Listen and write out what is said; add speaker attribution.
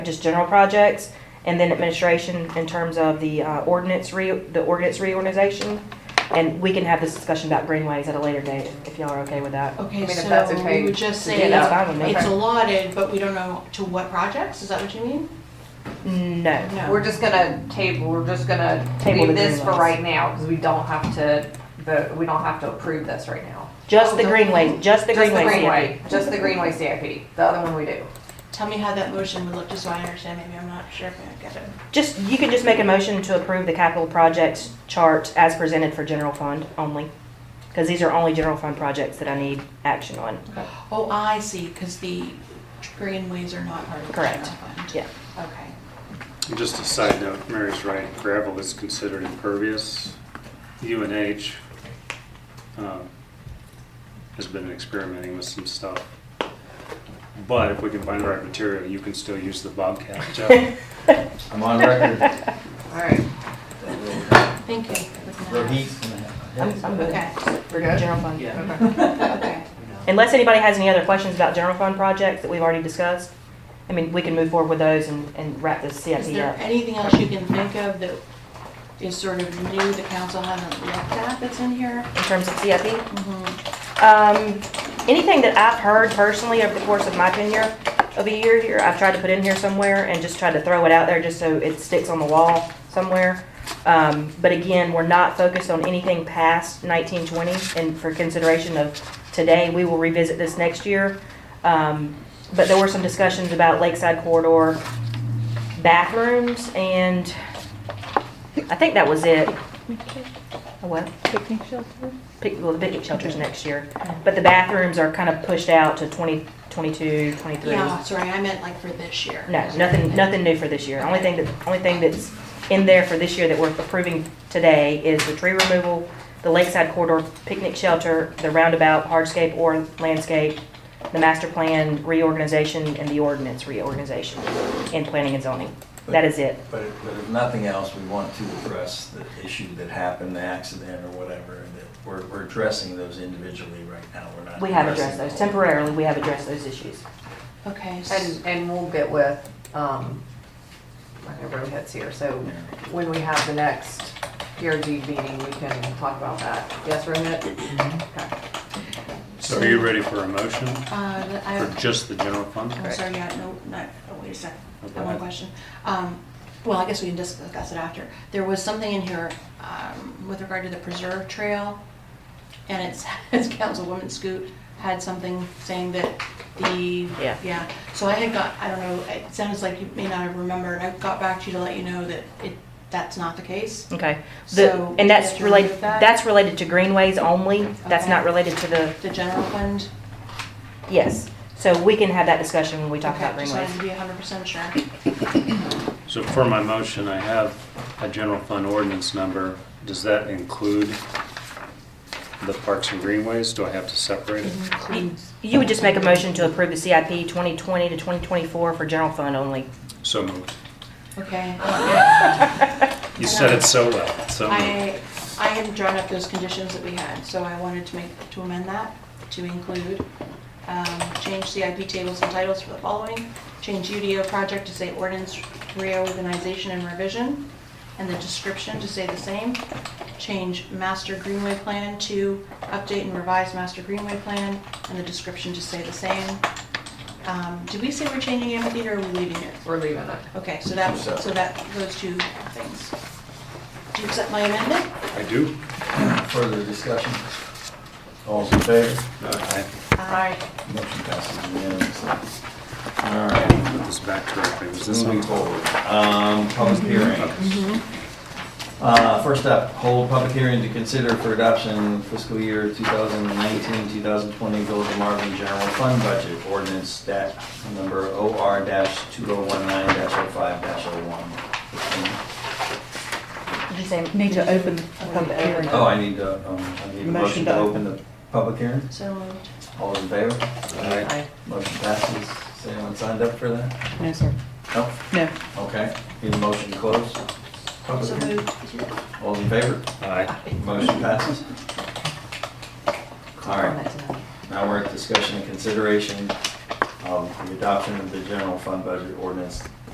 Speaker 1: just general projects, and then administration in terms of the uh, ordinance re, the ordinance reorganization. And we can have this discussion about greenways at a later date, if y'all are okay with that.
Speaker 2: Okay,
Speaker 3: I mean, if that's
Speaker 2: so
Speaker 3: okay
Speaker 2: we would just
Speaker 1: Yeah,
Speaker 2: say
Speaker 1: that's fine with me.
Speaker 2: it's allotted, but we don't know to what projects, is that what you mean?
Speaker 1: Mm, No.
Speaker 3: We're just gonna table, we're just gonna
Speaker 1: Table
Speaker 3: do
Speaker 1: the
Speaker 3: this for
Speaker 1: greenways.
Speaker 3: right now, because we don't have to, vote we don't have to approve this right now.
Speaker 1: Just the greenways, just the
Speaker 3: Just the
Speaker 1: greenways.
Speaker 3: greenway, just the greenway CIP, the other one we do.
Speaker 2: Tell me how that motion would look, just so I understand, maybe I'm not sure if I get it.
Speaker 1: Just, you can just make a motion to approve the capital projects chart as presented for general fund only. Because these are only general fund projects that I need action on.
Speaker 2: Oh, I see, because the greenways are not part of the
Speaker 1: Correct.
Speaker 2: general fund.
Speaker 1: Yeah.
Speaker 2: Okay.
Speaker 4: And Just a side note, Mary's right, gravel is considered impervious. UNH um, has been experimenting with some stuff. But if we can find the right material, you can still use the Bobcat, Jeff.
Speaker 5: I'm on record.
Speaker 3: Alright.
Speaker 2: Thank you.
Speaker 1: I'm, I'm good.
Speaker 2: Okay,
Speaker 1: For general fund.
Speaker 2: okay.
Speaker 1: Unless anybody has any other questions about general fund projects that we've already discussed, I mean, we can move forward with those and, and wrap this
Speaker 2: Is
Speaker 1: CIP
Speaker 3: uh,
Speaker 2: there
Speaker 1: up.
Speaker 2: anything else you can think of that is sort of new the council hasn't looked at that's in here?
Speaker 1: In terms of CIP,
Speaker 2: Mm-hmm.
Speaker 1: um, anything that I've heard personally over the course of my tenure of a year here, I've tried to put in here somewhere and just tried to throw it out there just so it sticks on the wall somewhere. Um, but again, we're not focused on anything past nineteen twenty and for consideration of today, we will revisit this next year. Um, but there were some discussions about Lakeside Corridor bathrooms and I think that was it. A what?
Speaker 6: picnic shelter?
Speaker 1: pic- well, the picnic shelters next year, but the bathrooms are kind of pushed out to 2022, 23.
Speaker 2: Yeah, sorry, I meant like for this year.
Speaker 1: No, nothing, nothing new for this year. Only thing that, only thing that's in there for this year that we're approving today is the tree removal, the lakeside corridor picnic shelter, the roundabout hardscape or landscape, the master plan reorganization, and the ordinance reorganization in planning and zoning. That is it.
Speaker 5: But if but if nothing else, we want to address the issue that happened, the accident or whatever, that we're, we're addressing those individually right now. We're not.
Speaker 1: We have addressed those.
Speaker 5: addressing the
Speaker 1: Temporarily, we have addressed those issues.
Speaker 2: Okay. s-
Speaker 3: And, and we'll get with, um, I know Rohit's here, so when we have the next PRG meeting, we can talk about that. Yes, Rohit? Okay.
Speaker 4: So are you ready for a motion
Speaker 2: Uh,
Speaker 4: for
Speaker 2: I,
Speaker 4: just the general fund?
Speaker 2: I'm sorry, yeah, no, not, oh, wait a second.
Speaker 4: Okay.
Speaker 2: One more question. Um, Well, I guess we can just discuss it after. There was something in here um, with regard to the preserve trail, and it's, it's Councilwoman Scoot had something saying that the,
Speaker 1: Yeah.
Speaker 2: yeah. So I had got, I don't know, it sounds like you may not have remembered, I got back to you to let you know that it, that's not the case.
Speaker 1: Okay, the,
Speaker 2: So,
Speaker 1: and
Speaker 2: did
Speaker 1: that's
Speaker 2: you
Speaker 1: related,
Speaker 2: remove that?
Speaker 1: that's related to greenways only, that's not
Speaker 2: Okay.
Speaker 1: related to the,
Speaker 2: The general fund.
Speaker 1: yes. So we can have that discussion when we talk about
Speaker 2: Okay, Just
Speaker 1: greenways.
Speaker 2: wanted to be hundred percent sure.
Speaker 4: So for my motion, I have a general fund ordinance number. Does that include the parks and greenways? Do I have to separate it?
Speaker 2: Mm-hmm.
Speaker 1: You would just make a motion to approve the CIP 2020 to 2024 for general fund only.
Speaker 4: So moved.
Speaker 2: Okay.
Speaker 4: You said it so well, so moved.
Speaker 2: I, I had drawn up those conditions that we had, so I wanted to make, to amend that to include, um, change CIP tables and titles for the following, change UDO project to say ordinance reorganization and revision, and the description to say the same, change master greenway plan to update and revise master greenway plan, and the description to say the same. Um, Did we say we're changing amphitheater or are we leaving it?
Speaker 3: We're leaving it.
Speaker 2: Okay, so that, so that, those two things. Do you accept my amendment?
Speaker 4: I do.
Speaker 5: Further discussion? All's in favor?
Speaker 4: Uh, I
Speaker 2: Aye.
Speaker 5: Motion passes unanimously. All right,
Speaker 4: put this back correctly. Was this
Speaker 5: moving
Speaker 4: on?
Speaker 5: forward. Um, Public hearing. Uh, First up, hold public hearing to consider for adoption fiscal year 2019, 2020 Village of Marvin General Fund Budget Ordinance Stat Number OR-2019-05-01.
Speaker 1: Did you say?
Speaker 6: Need to open the public hearing.
Speaker 5: Oh, I need to, um, I need a motion to open the public hearing.
Speaker 2: So moved.
Speaker 5: All those in favor?
Speaker 4: Aye.
Speaker 5: Motion passes. Has anyone signed up for that?
Speaker 6: No, sir.
Speaker 5: No?
Speaker 6: No.
Speaker 5: Okay. Need a motion to close?
Speaker 2: So
Speaker 5: Public hearing.
Speaker 2: moved.
Speaker 5: All those in favor?
Speaker 4: Aye.
Speaker 5: Motion passes. All right. Now we're at discussion and consideration of the adoption of the general fund budget ordinance